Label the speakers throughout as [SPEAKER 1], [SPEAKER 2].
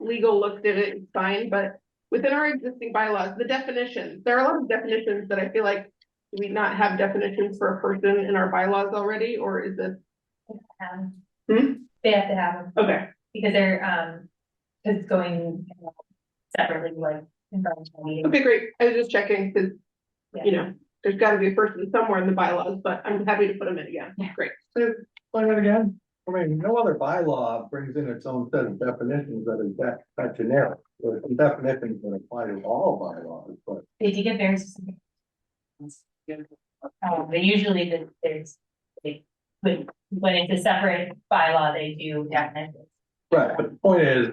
[SPEAKER 1] legal looked at it, it's fine, but within our existing bylaws, the definitions, there are a lot of definitions that I feel like. Do we not have definitions for a person in our bylaws already, or is this,
[SPEAKER 2] Um,
[SPEAKER 1] Hmm?
[SPEAKER 2] They have to have them
[SPEAKER 1] okay,
[SPEAKER 2] because they're, um, 'cause it's going you know, separately, like. environmental meeting.
[SPEAKER 1] okay, great, I was just checking, cause. You know, there's gotta be a person somewhere in the bylaws, but I'm happy to put them in again,
[SPEAKER 2] Yeah.
[SPEAKER 1] great,
[SPEAKER 3] Play it again. I mean, no other bylaw brings in its own set of definitions that is that, that generic. There's some definitions that apply to all bylaws, but
[SPEAKER 2] They do get various. Um, they usually, the- there's, they, when, when it's a separate bylaw, they do definitely.
[SPEAKER 3] Right, but the point is,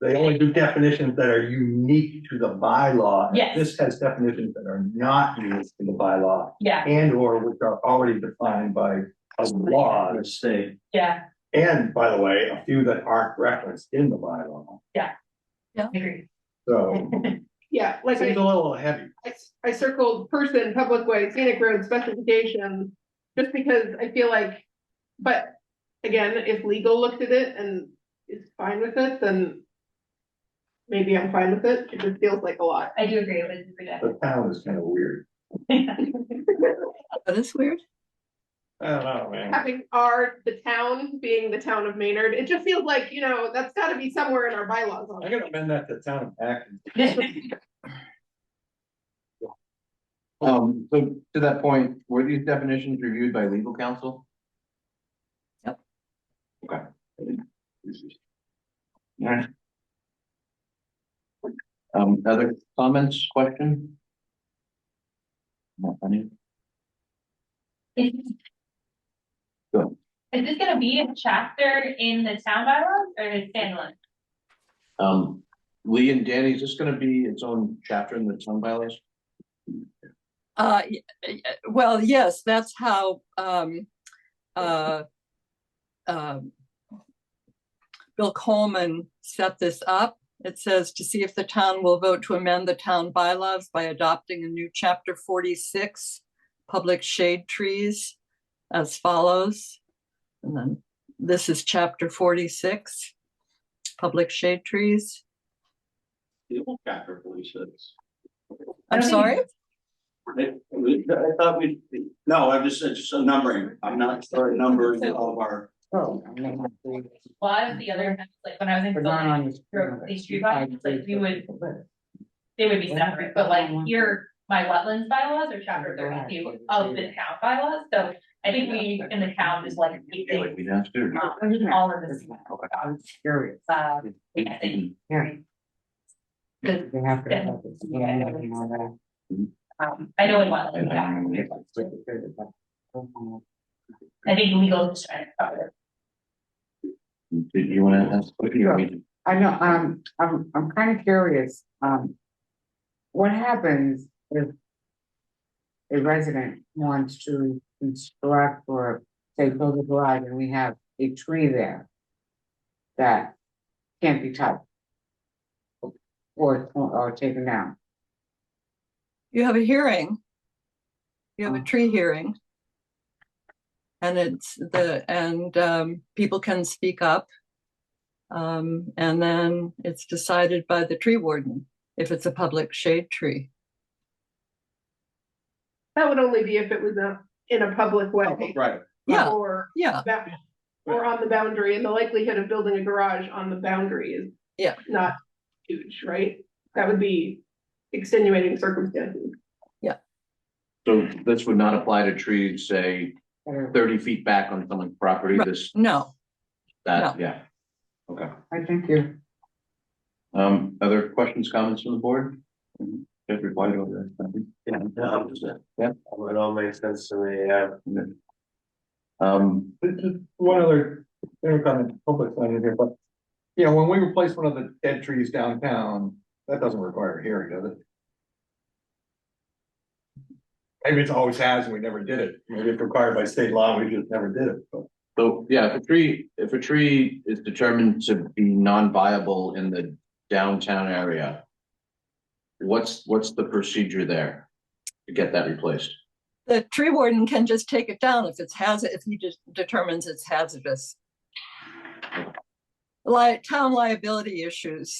[SPEAKER 3] they only do definitions that are unique to the bylaw.
[SPEAKER 2] Yes.
[SPEAKER 3] This has definitions that are not unique to the bylaw
[SPEAKER 2] Yeah,
[SPEAKER 3] and or which are already defined by other laws.
[SPEAKER 4] state.
[SPEAKER 2] yeah,
[SPEAKER 3] And by the way, a few that aren't referenced in the bylaw,
[SPEAKER 2] agree.
[SPEAKER 3] so
[SPEAKER 1] yeah, like. I-
[SPEAKER 3] seems a little heavy.
[SPEAKER 1] I, I circled person, public way, scenic road specifications, just because I feel like, but again, if legal looked at it and is fine with it, then maybe I'm fine with it. It just feels like a lot.
[SPEAKER 2] I do agree with you. Rita.
[SPEAKER 3] The town is kind of weird.
[SPEAKER 5] That is weird.
[SPEAKER 3] I don't know, man.
[SPEAKER 1] Having our, the town being the town of Maynard, it just feels like, you know, that's gotta be somewhere in our bylaws.
[SPEAKER 3] I gotta amend that to town of Acton.
[SPEAKER 4] Um, so to that point, were these definitions reviewed by legal counsel?
[SPEAKER 5] Yep.
[SPEAKER 4] Okay. Alright. Um, other comments, question? Not funny.
[SPEAKER 2] Is
[SPEAKER 4] Go.
[SPEAKER 2] this gonna be a chapter in the town bylaws or is it standalone?
[SPEAKER 4] Um, Lee and Danny, is this gonna be its own chapter in the town bylaws?
[SPEAKER 5] Uh, y- y- well, yes, that's how, um, uh, um, Bill Coleman set this up. It says to see if the town will vote to amend the town bylaws by adopting a new chapter forty-six, public shade trees as follows. And then this is chapter forty-six, public shade trees.
[SPEAKER 6] The old chapter forty-six.
[SPEAKER 5] I'm
[SPEAKER 2] Okay.
[SPEAKER 5] sorry?
[SPEAKER 6] I I thought we, no, I'm just, it's just a numbering, I'm not starting numbering all of our.
[SPEAKER 7] Oh.
[SPEAKER 2] A lot of the other, events, like when I was in. film,
[SPEAKER 7] But not on your.
[SPEAKER 2] Or these tree bylaws, like, we would- They would be separate, but like your, my wetlands bylaws are chapter thirty-two of the town bylaws, so I think we in the town is like. we
[SPEAKER 4] Yeah, Like
[SPEAKER 2] think,
[SPEAKER 4] we have to.
[SPEAKER 2] um, All of this,
[SPEAKER 7] I'm curious.
[SPEAKER 2] uh, yeah, I think,
[SPEAKER 4] Okay.
[SPEAKER 7] Yeah.
[SPEAKER 2] Good.
[SPEAKER 7] You have to
[SPEAKER 2] Good.
[SPEAKER 7] have this scanning and all that.
[SPEAKER 2] um, I know in
[SPEAKER 4] And
[SPEAKER 2] wetlands, yeah,
[SPEAKER 4] I-
[SPEAKER 2] I think legal is trying to cover.
[SPEAKER 4] Did you wanna ask? what do you mean?
[SPEAKER 7] I know, um, I'm, I'm kind of curious, um. What happens if? A resident wants to construct or say build a garage and we have a tree there. That can't be touched. Or, or taken down.
[SPEAKER 5] You have a hearing. You have a
[SPEAKER 7] Oh.
[SPEAKER 5] tree hearing. And it's the, and um, people can speak up. Um, and then it's decided by the tree warden if it's a public shade tree.
[SPEAKER 1] That would only be if it was a, in a public way.
[SPEAKER 4] Right.
[SPEAKER 5] Yeah,
[SPEAKER 1] Or,
[SPEAKER 5] yeah,
[SPEAKER 1] ba- or on the boundary, and the likelihood of building a garage on the boundary is.
[SPEAKER 5] Yeah.
[SPEAKER 1] Not huge, right? That would be extenuating circumstances.
[SPEAKER 4] So this would not apply to trees, say,
[SPEAKER 7] Or-
[SPEAKER 4] thirty feet back on someone's property,
[SPEAKER 5] Right.
[SPEAKER 4] this,
[SPEAKER 5] no.
[SPEAKER 4] that, yeah. Okay,
[SPEAKER 7] I thank you.
[SPEAKER 4] um, other questions, comments from the board? Just replied over
[SPEAKER 8] Mm-hmm. Yeah,
[SPEAKER 4] there.
[SPEAKER 8] um,
[SPEAKER 4] Yeah,
[SPEAKER 8] it all makes sense to me, yeah.
[SPEAKER 4] um,
[SPEAKER 3] Just- just One other, thing on the public land here, but, you know, when we replace one of the dead trees downtown, that doesn't require a hearing, does it? Maybe it's always has and we never did it. Maybe it's required by state law, we just never did it, but.
[SPEAKER 4] so, yeah, if a tree, if a tree is determined to be non-viable in the downtown area. What's, what's the procedure there to get that replaced?
[SPEAKER 5] The tree warden can just take it down if it's hazard, if he just determines it's hazardous. Li- town liability issues.